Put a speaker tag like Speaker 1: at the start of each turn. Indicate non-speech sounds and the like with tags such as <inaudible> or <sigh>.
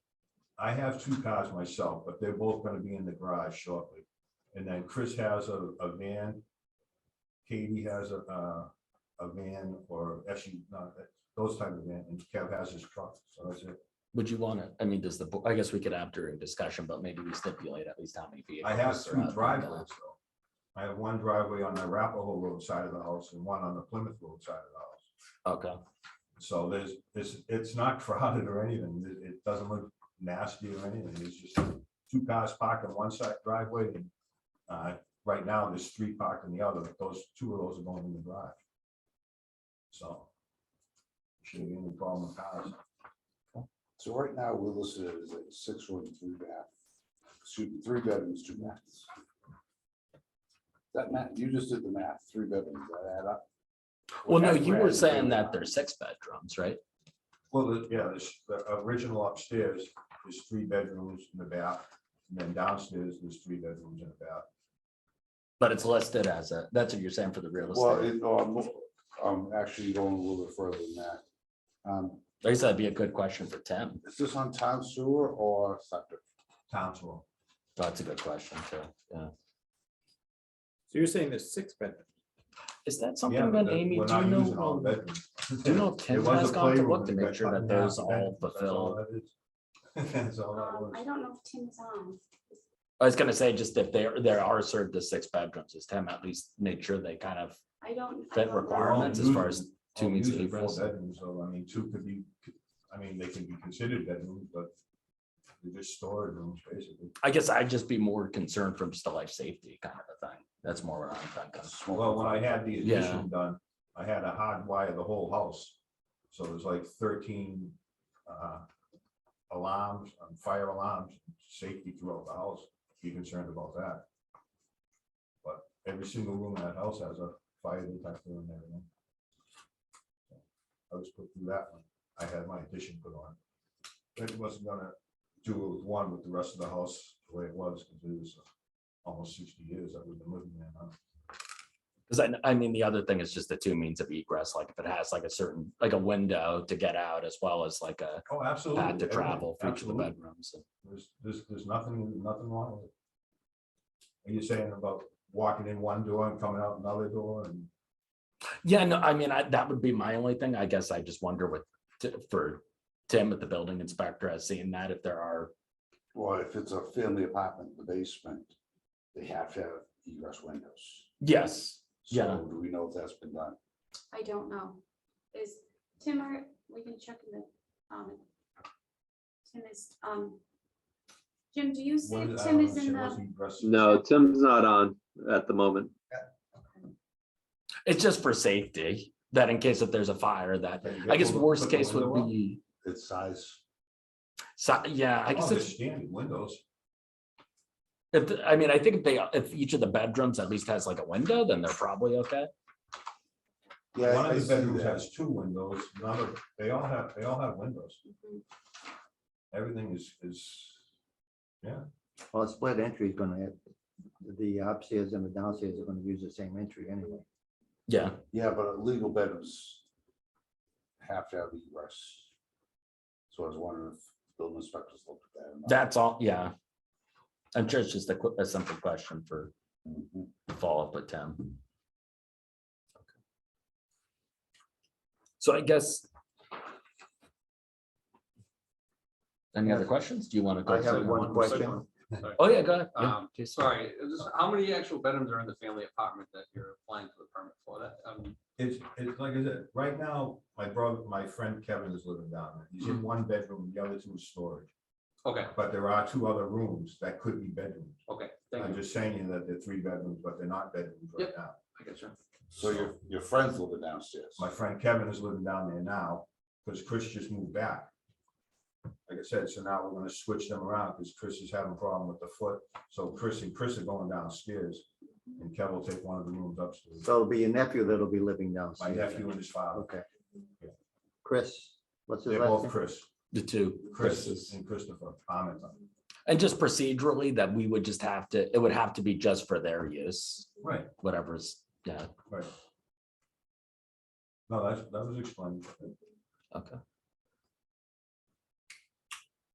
Speaker 1: I have two cars myself, but they're both gonna be in the garage shortly. And then Chris has a, a van. Katie has a, uh, a van or SU, not, that- those type of van, and Kev has his truck, so that's it.
Speaker 2: Would you want to, I mean, does the, bo- I guess we could have during discussion, but maybe we stipulate at least how many vehicles.
Speaker 1: I have
Speaker 2: are
Speaker 1: two
Speaker 2: out there.
Speaker 1: driveways though. I have one driveway on the Arapahoe Road side of the house and one on the Plymouth Road side of the house.
Speaker 2: Okay,
Speaker 1: So there's, it's, it's not <laughs> crowded or anything, it, it doesn't look nasty or anything, it's just two cars parked on one side driveway. and, Uh, right now, there's three parked in the other, but those, two of those are going in the garage. So. Shouldn't be any problem with cars,
Speaker 3: So right now, we're listed as a six room, three bath, excuse me, three bedrooms, two baths. That math, you just did the math, three bedrooms, that add up.
Speaker 2: well, no,
Speaker 3: That's
Speaker 2: you
Speaker 3: where I
Speaker 2: were
Speaker 3: was
Speaker 2: saying
Speaker 3: going.
Speaker 2: that there's six bedrooms, right?
Speaker 1: well, the- yeah, this, the original upstairs is three bedrooms and a bath, and then downstairs, there's three bedrooms and a bath.
Speaker 2: But it's listed as a, that's what you're saying for the real
Speaker 3: Well,
Speaker 2: estate.
Speaker 3: it, um, I'm actually going a little bit further than that. Um,
Speaker 2: I guess that'd be a good question for Tim.
Speaker 3: is this on town sewer or septic?
Speaker 1: Townsville,
Speaker 2: That's a good question too. Yeah.
Speaker 4: So you're saying there's six bedrooms?
Speaker 2: Is that
Speaker 1: yeah,
Speaker 2: something
Speaker 1: but
Speaker 2: that
Speaker 1: the-
Speaker 2: Amy,
Speaker 1: we're
Speaker 2: do you
Speaker 1: not using all
Speaker 2: know?
Speaker 1: the bedrooms.
Speaker 2: Do you know
Speaker 1: It
Speaker 2: Tim
Speaker 1: was
Speaker 2: has
Speaker 1: a
Speaker 2: gone to
Speaker 1: playroom
Speaker 2: look to
Speaker 1: and
Speaker 2: make
Speaker 1: got
Speaker 2: sure
Speaker 1: cut in
Speaker 2: that those
Speaker 1: half, and
Speaker 2: all
Speaker 1: that's
Speaker 2: fulfilled?
Speaker 1: that is. <laughs> That's all that
Speaker 5: Um,
Speaker 1: was.
Speaker 5: I don't know if Tim's on.
Speaker 2: I was gonna say, just if there, there are served as six bedrooms, is Tim at least make sure they kind of
Speaker 5: I
Speaker 2: That
Speaker 5: don't. I don't know.
Speaker 1: They're all
Speaker 2: requirements as far as
Speaker 1: using-
Speaker 2: two
Speaker 1: all
Speaker 2: meets
Speaker 1: using
Speaker 2: the
Speaker 1: full
Speaker 2: rest.
Speaker 1: bedrooms, So I mean, two could be, I mean, they can be considered bedrooms, but they're just storage rooms basically.
Speaker 2: I guess I'd just be more concerned from just a life safety kind of a thing. That's more what I'm thinking.
Speaker 3: Smoking
Speaker 1: Well, when I had the
Speaker 2: Yeah.
Speaker 1: addition done, I had to hardwire the whole house. So there's like thirteen uh, alarms, um, fire alarms, safety throughout the house. Be concerned about that. But every single room in that house has a fire detector and everything. I was put through that one. I had my addition put on. But it wasn't gonna do it with one with the rest of the house the way it was, because it was almost sixty years that we've been living there now.
Speaker 2: Cause I, I mean, the other thing is just the two means of egress, like if it has like a certain, like a window to get out as well as like a
Speaker 1: Oh, absolutely.
Speaker 2: pad to
Speaker 1: everything,
Speaker 2: travel for each of the
Speaker 1: absolutely.
Speaker 2: bedrooms.
Speaker 1: There's, there's, there's nothing, nothing wrong with it. Are you saying about walking in one door and coming out another door and?
Speaker 2: Yeah, no, I mean, I, that would be my only thing. I guess I just wonder what, t- for Tim at the building inspector, has seen that if there are,
Speaker 3: Well, if it's a family apartment, the basement, they have to have egress windows.
Speaker 2: yes. Yeah.
Speaker 3: So do we know if that's been done?
Speaker 5: I don't know. Is Tim or, we can check in the, um, Tim is, um, Jim, do you see
Speaker 1: what-
Speaker 5: if
Speaker 1: I
Speaker 5: Tim
Speaker 1: don't
Speaker 5: is in
Speaker 1: understand, was
Speaker 5: the,
Speaker 1: he dressed-
Speaker 6: No, Tim's not on at the moment.
Speaker 2: It's just for safety, that in case if there's a fire that,
Speaker 1: That you
Speaker 2: I guess
Speaker 1: put the-
Speaker 2: worst
Speaker 1: put the
Speaker 2: case would
Speaker 1: window up?
Speaker 2: be,
Speaker 3: It's size.
Speaker 2: so, yeah, I
Speaker 1: Oh,
Speaker 2: guess
Speaker 1: they're
Speaker 2: it's.
Speaker 1: standard windows.
Speaker 2: If, the- I mean, I think they, if each of the bedrooms at least has like a window, then they're probably okay.
Speaker 3: Yeah,
Speaker 1: One
Speaker 3: I
Speaker 1: of
Speaker 3: see
Speaker 1: the bedrooms
Speaker 3: that.
Speaker 1: has two windows, another, they all have, they all have windows.
Speaker 5: Mhm. Mm-hmm.
Speaker 1: Everything is, is,
Speaker 7: Well, a split entry is gonna have, the upstairs and the downstairs are gonna use the same entry anyway.
Speaker 2: Yeah,
Speaker 3: Yeah, but legal bedrooms have to have egress. So I was wondering if building inspectors looked at that. or not.
Speaker 2: that's all, yeah. I'm sure it's just a quick, a simple question for
Speaker 3: Mhm.
Speaker 2: follow-up with Tim. So I guess. Any other questions? Do you want to? go?
Speaker 7: I have
Speaker 2: through?
Speaker 7: one question.
Speaker 2: Oh, yeah, go ahead. Yeah,
Speaker 8: Um,
Speaker 2: please.
Speaker 8: Sorry, just how many actual bedrooms are in the family apartment that you're applying for the permit for that? um,
Speaker 1: it's, it's like I said, right now, my brother, my friend Kevin is living down there. He's
Speaker 2: Mm.
Speaker 1: in one bedroom, the other two is storage.
Speaker 8: Okay,
Speaker 1: But there are two other rooms that could be bedrooms.
Speaker 8: okay, thank
Speaker 1: I'm
Speaker 8: you.
Speaker 1: just saying that they're three bedrooms, but they're not bedrooms right
Speaker 8: Yep.
Speaker 1: now.
Speaker 8: I got you.
Speaker 3: So your, your friends live downstairs.
Speaker 1: My friend Kevin is living down there now, because Chris just moved back. Like I said, so now we're gonna switch them around, because Chris is having a problem with the foot, so Chris and Chris are going downstairs, and Kev will take one of the rooms upstairs.
Speaker 7: So it'll be your nephew that'll be living
Speaker 1: My
Speaker 7: downstairs.
Speaker 1: nephew and his father,
Speaker 7: Okay.
Speaker 1: Yeah.
Speaker 7: Chris, what's his
Speaker 1: they're
Speaker 7: last
Speaker 1: both
Speaker 7: name?
Speaker 1: Chris,
Speaker 2: The two.
Speaker 1: Chris
Speaker 2: Chris's.
Speaker 1: and Christopher, comment on.
Speaker 2: And just procedurally that we would just have to, it would have to be just for their use,
Speaker 1: Right,
Speaker 2: whatever's, yeah.
Speaker 1: right. No, that's, that was explained.
Speaker 2: Okay.